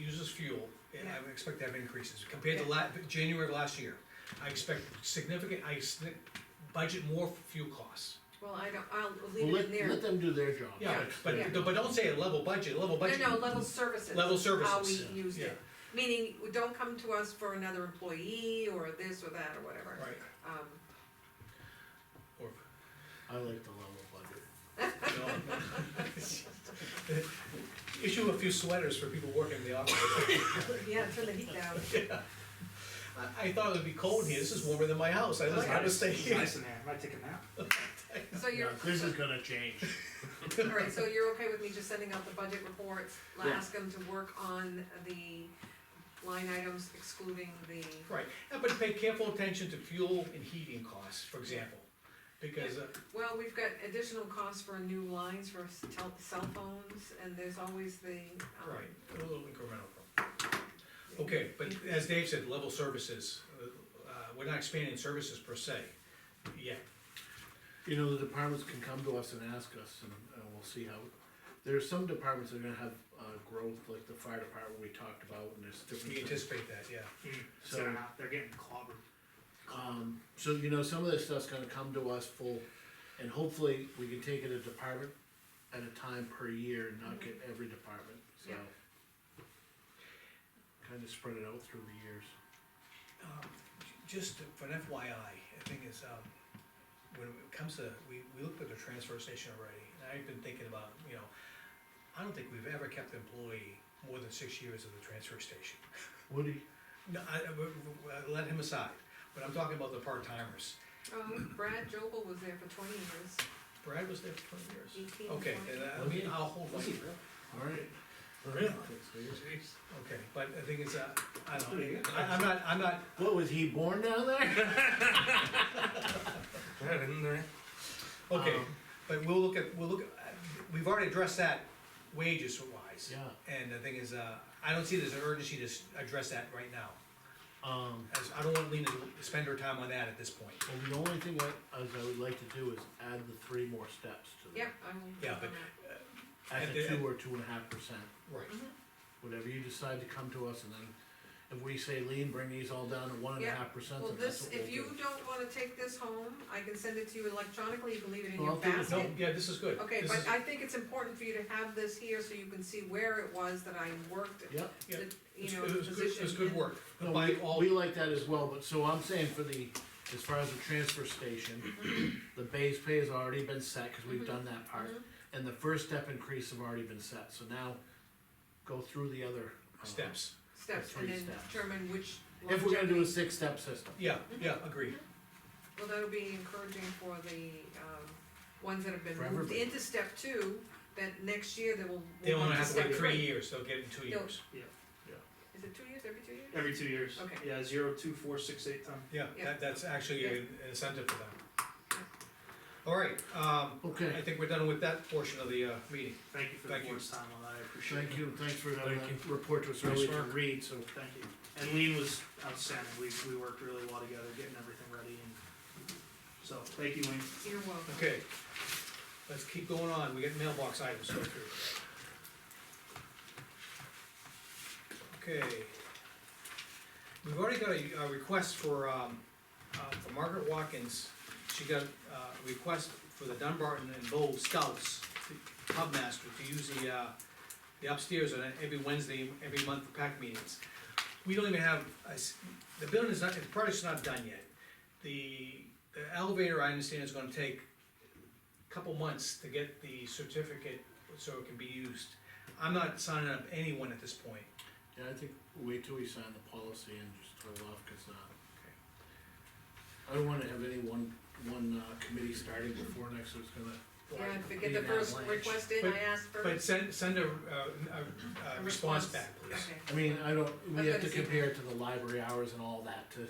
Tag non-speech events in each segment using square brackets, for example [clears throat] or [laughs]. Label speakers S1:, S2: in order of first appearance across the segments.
S1: will, and I would expect to have increases compared to la, January of last year. I expect significant, I s- budget more for fuel costs.
S2: Well, I don't, I'll
S3: Well,
S2: leave it
S3: let,
S2: in there.
S3: let them do their job.
S2: Yeah,
S3: That's
S2: but-
S3: their
S2: Yeah.
S3: job.
S2: but but
S1: don't say a level budget, level budget.
S2: No, no, level services.
S1: Level
S2: How
S1: services,
S2: we used it, meaning, we don't come to us for another employee, or this or that, or whatever.
S1: Right,
S2: Um,
S1: or,
S3: I like the level budget.
S1: no. [laughs] Issue a few sweaters for people working in the office.
S2: yeah, turn the heat down.
S1: I, I thought it would be cold in here, this is warmer than my house, I
S2: Oh,
S1: was, I was staying
S4: It's
S1: here.
S4: Nice in there, I might take a nap.
S2: So you're,
S3: Now, This
S2: [laughs]
S3: is gonna change.
S2: alright, so you're okay with me just sending out the budget reports, I'll
S3: Yeah.
S2: ask them to work on the line items excluding the,
S1: Right, Uh, but pay careful attention to fuel and heating costs, for example, because, uh,
S2: well, we've got additional costs for new lines for s- tel- cell phones, and there's always the, um,
S1: right, a little incremental. Okay, but as Dave said, level services, uh, uh, we're not expanding services per se, yet.
S3: You know, the departments can come to us and ask us and, and we'll see how. There are some departments that are gonna have, uh, growth, like the fire department we talked about and there's
S1: we
S3: different.
S1: anticipate that, yeah.
S3: So-
S4: They're not, they're getting clobbered.
S3: Um, so you know, some of this stuff's gonna come to us full, and hopefully we can take it a department at a time per year and not get every department, so.
S2: Yeah.
S3: Kinda spread it out through the years.
S1: Um, j- Just for an FYI, the thing is, um, when it comes to, we, we looked at the transfer station already, and I've been thinking about, you know, I don't think we've ever kept an employee more than six years at the transfer station.
S3: Woody,
S1: No, I, I- w- w- uh, let him aside, but I'm talking about the part timers.
S2: um, Brad Jobel was there for twenty years,
S1: Brad was there for twenty years.
S2: eighteen, twenty.
S1: Okay, then I- I mean, I'll hold my,
S3: alright.
S1: Really?
S3: Thanks,
S1: okay, but the thing is, uh, I
S4: pretty
S1: don't,
S4: good.
S1: I, I'm not, I'm not,
S3: What, was he born
S1: [laughs]
S3: down there? [laughs]
S1: okay,
S3: Um,
S1: but we'll look at, we'll look, at- we've already addressed that wages wise.
S3: Yeah,
S1: And the thing is, uh, I don't see there's an urgency to s- address that right now,
S3: um,
S1: as I don't want Lena to spend her time on that at this point.
S3: well, the only thing I, as I would like to do is add the three more steps to
S2: Yep,
S3: that.
S2: I will.
S1: Yeah, but-
S3: At
S1: At
S3: the
S1: the-
S3: two or two and a half percent,
S1: Right.
S3: whatever you decide to come to us and then if we say lean, bring these all down to one and a
S2: Yeah.
S3: half percent,
S2: Well,
S3: then that's
S2: this,
S3: what we'll do.
S2: if you don't wanna take this home, I can send it to you electronically, you can leave it in
S3: Well,
S2: your
S3: I'll take it
S1: No,
S2: basket.
S1: yeah, this is good.
S2: Okay,
S1: This
S2: but uh,
S1: is-
S2: I think it's important for you to have this here so you can see where it was that I worked,
S3: Yep.
S1: Yeah.
S2: the,
S1: it's-
S2: you know,
S1: it was good-
S2: position.
S1: It was good
S2: and-
S1: work,
S3: No,
S1: by
S3: we,
S1: all,
S3: we like that as well, but so I'm saying for the, as far as the transfer station,
S2: [clears throat]
S3: the base pay has already been set, cause we've done that part.
S2: Mhm.
S3: And the first step increase have already been set, so now go through the other. uh,
S1: steps.
S2: Steps,
S3: Three
S2: and then
S3: steps.
S2: determine which.
S3: If we're gonna do a
S2: longevity-
S3: six-step system,
S1: Yeah,
S2: Mm-hmm.
S1: yeah, agreed.
S2: Well, that'll be encouraging for the, um, ones that have been
S3: For
S2: moved
S3: everybody.
S2: into step two, that next year they will. will
S1: They
S2: move
S1: won't
S2: to
S1: have to
S2: step
S1: wait three years, they'll get it in two
S2: No.
S1: years.
S2: Is it two years, every two years?
S4: Every two years.
S2: Okay.
S4: Yeah, zero, two, four, six, eight, ten.
S1: Yeah,
S2: Yeah.
S1: that, that's actually
S2: Yeah.
S1: an incentive for them. All right, um, I
S3: okay,
S1: think we're done with that portion of the, uh, meeting.
S4: Thank you for the
S1: Thank you.
S4: board's time on that, I appreciate it.
S3: thank you, thanks for having
S4: Thank
S3: that uh, report to us early to read, so.
S4: Thank you. And Lean was outstanding, we, we worked really well together, getting everything ready and, so, thank you, Lean.
S2: You're welcome.
S1: Okay, let's keep going on, we got mailbox items to go through. Okay. We've already got a, a request for, um, uh, for Margaret Watkins, she got, uh, a request for the Dunbarton and Bow Scouts, the pub master, to use the, uh, the upstairs on every Wednesday, every month for pack meetings. We don't even have, a s- the building is not, the project's not done yet. The the elevator, I understand, is gonna take a couple months to get the certificate so it can be used. I'm not signing up anyone at this point.
S3: Yeah, I think wait till we sign the policy and just throw it off, cause, uh, I don't wanna have any one, one, uh, committee starting before next, so it's gonna.
S2: Yeah, if we get
S3: Be
S2: the
S3: an
S2: first
S3: avalanche.
S2: request in,
S1: But-
S2: I asked for.
S1: But send, send a, uh, a, a response back, please.
S2: Okay.
S3: I mean, I don't,
S2: I've
S3: we have
S2: gotta
S3: to
S2: see
S3: compare it to the library hours and all that to,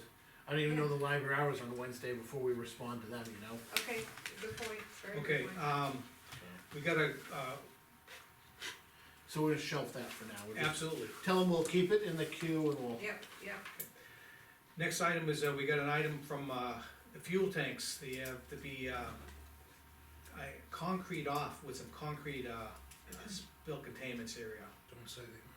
S3: I don't even know the library hours on Wednesday before we respond to them, you know?
S2: Okay, good point, very good
S1: Okay,
S2: point.
S1: um, we gotta, uh,
S3: So we're gonna shelf that for now. We're just-
S1: absolutely.
S3: Tell them we'll keep it in the queue and we'll,
S2: Yep, yep,
S1: Next item is, uh, we got an item from, uh, the fuel tanks, they have to be, uh, I, concrete off with some concrete, uh, spill containments area.
S5: Don't say they